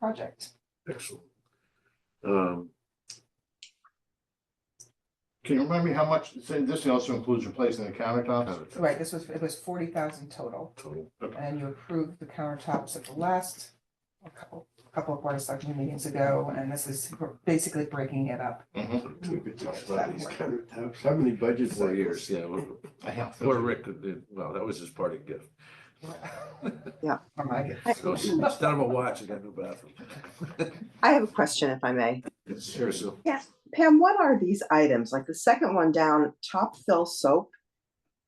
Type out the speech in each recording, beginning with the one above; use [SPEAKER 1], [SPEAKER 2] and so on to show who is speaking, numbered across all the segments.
[SPEAKER 1] project.
[SPEAKER 2] Excellent. Um, Can you remind me how much, so this also includes replacing the countertops?
[SPEAKER 1] Right, this was, it was forty thousand total,
[SPEAKER 2] Total, okay.
[SPEAKER 1] and you approved the countertops at the last, a couple, couple of board of selectmen meetings ago, and this is basically breaking it up.
[SPEAKER 2] Mhm.
[SPEAKER 3] Mm-hmm. How many budgets
[SPEAKER 2] Four
[SPEAKER 3] are
[SPEAKER 2] years,
[SPEAKER 3] yours?
[SPEAKER 2] yeah, well,
[SPEAKER 3] I have.
[SPEAKER 2] poor Rick, did- well, that was his party gift.
[SPEAKER 1] Am I-
[SPEAKER 2] So Instead of a watch, I got a new bathroom.
[SPEAKER 4] I have a question if I may.
[SPEAKER 2] Sure, so,
[SPEAKER 4] Pam, what are these items? Like the second one down, top fill soap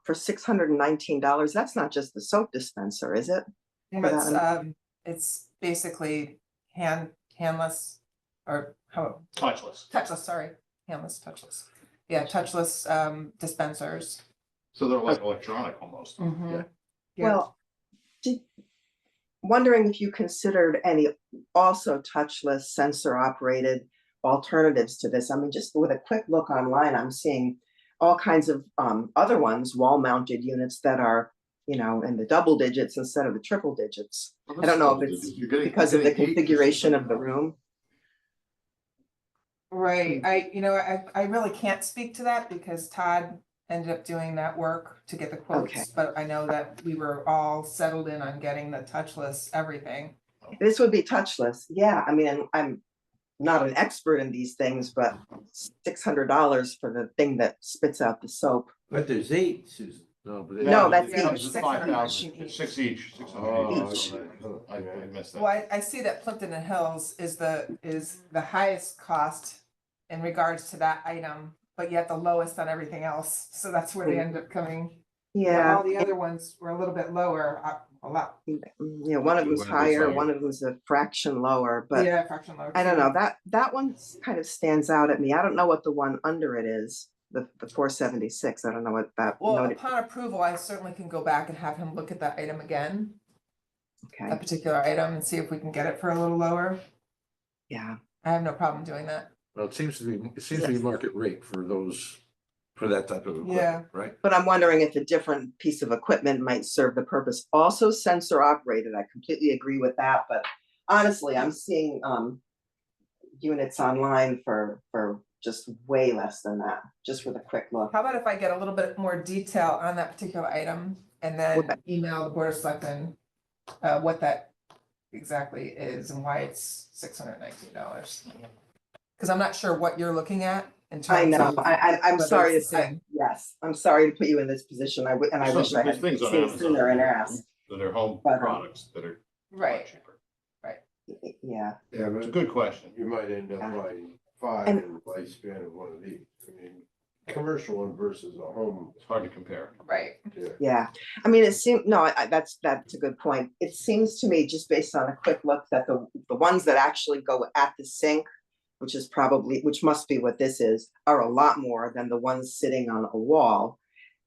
[SPEAKER 4] for six hundred and nineteen dollars. That's not just the soap dispenser, is it?
[SPEAKER 1] No, It's,
[SPEAKER 4] Without
[SPEAKER 1] um, it's basically hand, handless, or how,
[SPEAKER 3] Touchless.
[SPEAKER 1] touchless, sorry, handless, touchless. Yeah, touchless, um, dispensers.
[SPEAKER 3] So they're like electronic almost.
[SPEAKER 1] Mhm. Yeah.
[SPEAKER 4] Well, did, wondering if you considered any also touchless sensor operated alternatives to this? I mean, just with a quick look online, I'm seeing all kinds of um other ones, wall mounted units that are, you know, in the double digits instead of the triple digits. I don't know if it's
[SPEAKER 3] You're getting-
[SPEAKER 4] because of the
[SPEAKER 3] you're getting eight
[SPEAKER 4] configuration of the room.
[SPEAKER 1] Right, I, you know, I, I really can't speak to that because Todd ended up doing that work to get the
[SPEAKER 4] Okay.
[SPEAKER 1] quotes. But I know that we were all settled in on getting the touchless everything.
[SPEAKER 4] This would be touchless. Yeah, I mean, I'm- I'm not an expert in these things, but six hundred dollars for the thing that spits out the soap.
[SPEAKER 5] But there's eight, Susan.
[SPEAKER 2] no, but.
[SPEAKER 4] No,
[SPEAKER 3] Yeah,
[SPEAKER 4] that's
[SPEAKER 3] it comes
[SPEAKER 1] each.
[SPEAKER 3] to 5,000.
[SPEAKER 1] 600 each.
[SPEAKER 3] Six each, six
[SPEAKER 4] Oh,
[SPEAKER 3] hundred each. I I missed
[SPEAKER 1] Well,
[SPEAKER 3] that.
[SPEAKER 1] I, I see that Plimpton and Hills is the, is the highest cost in regards to that item, but yet the lowest on everything else. So that's where they end up coming. But
[SPEAKER 4] Yeah,
[SPEAKER 1] All the other ones were a little bit lower, uh, a lot,
[SPEAKER 4] yeah, one of
[SPEAKER 2] One
[SPEAKER 4] them's
[SPEAKER 2] of them's
[SPEAKER 4] higher,
[SPEAKER 2] higher.
[SPEAKER 4] one of them's a fraction lower, but
[SPEAKER 1] yeah, fraction lower.
[SPEAKER 4] I don't
[SPEAKER 1] too.
[SPEAKER 4] know, that, that one s- kind of stands out at me. I don't know what the one under it is, the, the four seventy-six. I don't know what that.
[SPEAKER 1] Well,
[SPEAKER 4] noted-
[SPEAKER 1] upon approval, I certainly can go back and have him look at that item again, that
[SPEAKER 4] Okay,
[SPEAKER 1] particular item, and see if we can get it for a little lower.
[SPEAKER 4] yeah,
[SPEAKER 1] I have no problem doing that.
[SPEAKER 2] Well, it seems to be, it seems to be market rate for those, for that type of
[SPEAKER 1] Yeah.
[SPEAKER 2] equipment, right?
[SPEAKER 4] but I'm wondering if a different piece of equipment might serve the purpose. Also sensor operated. I completely agree with that, but honestly, I'm seeing, um, units online for, for just way less than that, just with a quick look.
[SPEAKER 1] How about if I get a little bit more detail on that particular item and then
[SPEAKER 4] Okay.
[SPEAKER 1] email the board of selectmen uh, what that exactly is and why it's six hundred nineteen dollars? Because I'm not sure what you're looking at in
[SPEAKER 4] I
[SPEAKER 1] terms
[SPEAKER 4] know,
[SPEAKER 1] of.
[SPEAKER 4] I, I, I'm
[SPEAKER 1] whether
[SPEAKER 4] sorry to
[SPEAKER 1] it's the
[SPEAKER 4] say,
[SPEAKER 1] same.
[SPEAKER 4] yes, I'm sorry to put you in this position, I would, and I
[SPEAKER 3] There's
[SPEAKER 4] wish I
[SPEAKER 3] some-
[SPEAKER 4] had
[SPEAKER 3] there's things on
[SPEAKER 4] seen
[SPEAKER 3] Amazon
[SPEAKER 4] sooner and asked,
[SPEAKER 3] That are home
[SPEAKER 4] But, um,
[SPEAKER 3] products that are a lot
[SPEAKER 1] Right,
[SPEAKER 3] cheaper.
[SPEAKER 4] Y- yeah,
[SPEAKER 5] Yeah,
[SPEAKER 3] It's a
[SPEAKER 5] but
[SPEAKER 3] good question.
[SPEAKER 5] you might end up
[SPEAKER 4] Yeah.
[SPEAKER 5] buying five
[SPEAKER 4] And-
[SPEAKER 5] in the lifespan of one of these. I mean, commercial one versus a home.
[SPEAKER 3] It's hard to compare.
[SPEAKER 1] right.
[SPEAKER 4] yeah. I mean, it seemed, no, I, I- that's, that's a good point. It seems to me, just based on a quick look, that the, the ones that actually go at the sink, which is probably, which must be what this is, are a lot more than the ones sitting on a wall.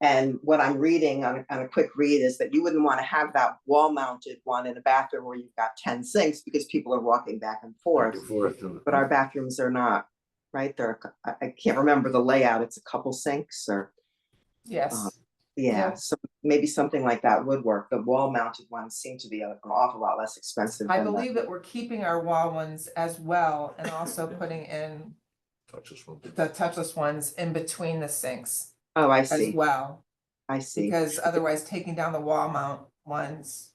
[SPEAKER 4] And what I'm reading on, a- on a quick read is that you wouldn't want to have that wall-mounted one in a bathroom where you've got ten sinks, because people are walking back and forth.
[SPEAKER 2] Fourth. uh, and-
[SPEAKER 4] but our bathrooms are not, right? They're, a cou- I, I can't remember the layout. It's a couple sinks or,
[SPEAKER 1] Yes,
[SPEAKER 4] Um, yeah, so maybe something like that would work. The wall mounted ones seem to be a- an awful lot less expensive.
[SPEAKER 1] I
[SPEAKER 4] than the-
[SPEAKER 1] believe that we're keeping our wall ones as well and also putting in
[SPEAKER 2] Touch this one.
[SPEAKER 1] the touchless ones in between the sinks
[SPEAKER 4] Oh, I
[SPEAKER 1] as
[SPEAKER 4] see,
[SPEAKER 1] well.
[SPEAKER 4] I see.
[SPEAKER 1] Because otherwise taking down the wall mount ones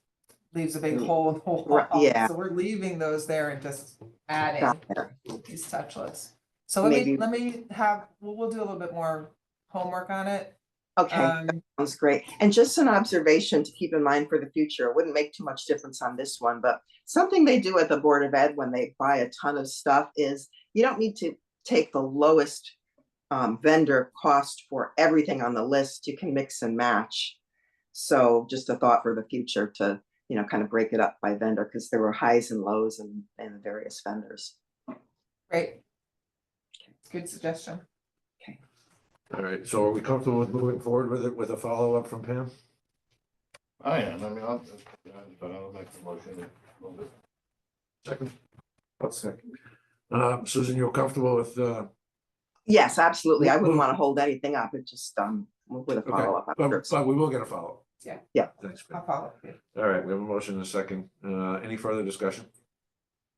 [SPEAKER 1] leaves a big hole in the wall.
[SPEAKER 4] Mm, Right, yeah.
[SPEAKER 1] So we're leaving those there and just adding
[SPEAKER 4] Got it.
[SPEAKER 1] these touchless. So let me,
[SPEAKER 4] Maybe-
[SPEAKER 1] let me have, we'll, we'll do a little bit more homework on it.
[SPEAKER 4] Okay,
[SPEAKER 1] Um,
[SPEAKER 4] sounds great. And just an observation to keep in mind for the future, it wouldn't make too much difference on this one, but something they do at the Board of Ed when they buy a ton of stuff is you don't need to take the lowest um, vendor cost for everything on the list. You can mix and match. So just a thought for the future to, you know, kind of break it up by vendor because there were highs and lows and, and various vendors.
[SPEAKER 1] great. Good suggestion.
[SPEAKER 2] All right, so are we comfortable with moving forward with it with a follow-up from Pam?
[SPEAKER 3] I am, I mean, I'll, I'll I'll make the motion.
[SPEAKER 2] Second. I'll second. Uh, Susan, you're comfortable with, uh,
[SPEAKER 4] Yes, absolutely. I
[SPEAKER 2] Well-
[SPEAKER 4] wouldn't want to hold anything up. It just, um, with a
[SPEAKER 2] Okay,
[SPEAKER 4] follow-up. I'm sure
[SPEAKER 2] but,
[SPEAKER 4] it's-
[SPEAKER 2] but we will get a follow-up.
[SPEAKER 1] Yeah.
[SPEAKER 4] Yeah.
[SPEAKER 2] Thanks, Pam.
[SPEAKER 1] I'll follow. up.
[SPEAKER 2] All right, we have a motion and a second. Uh, any further discussion?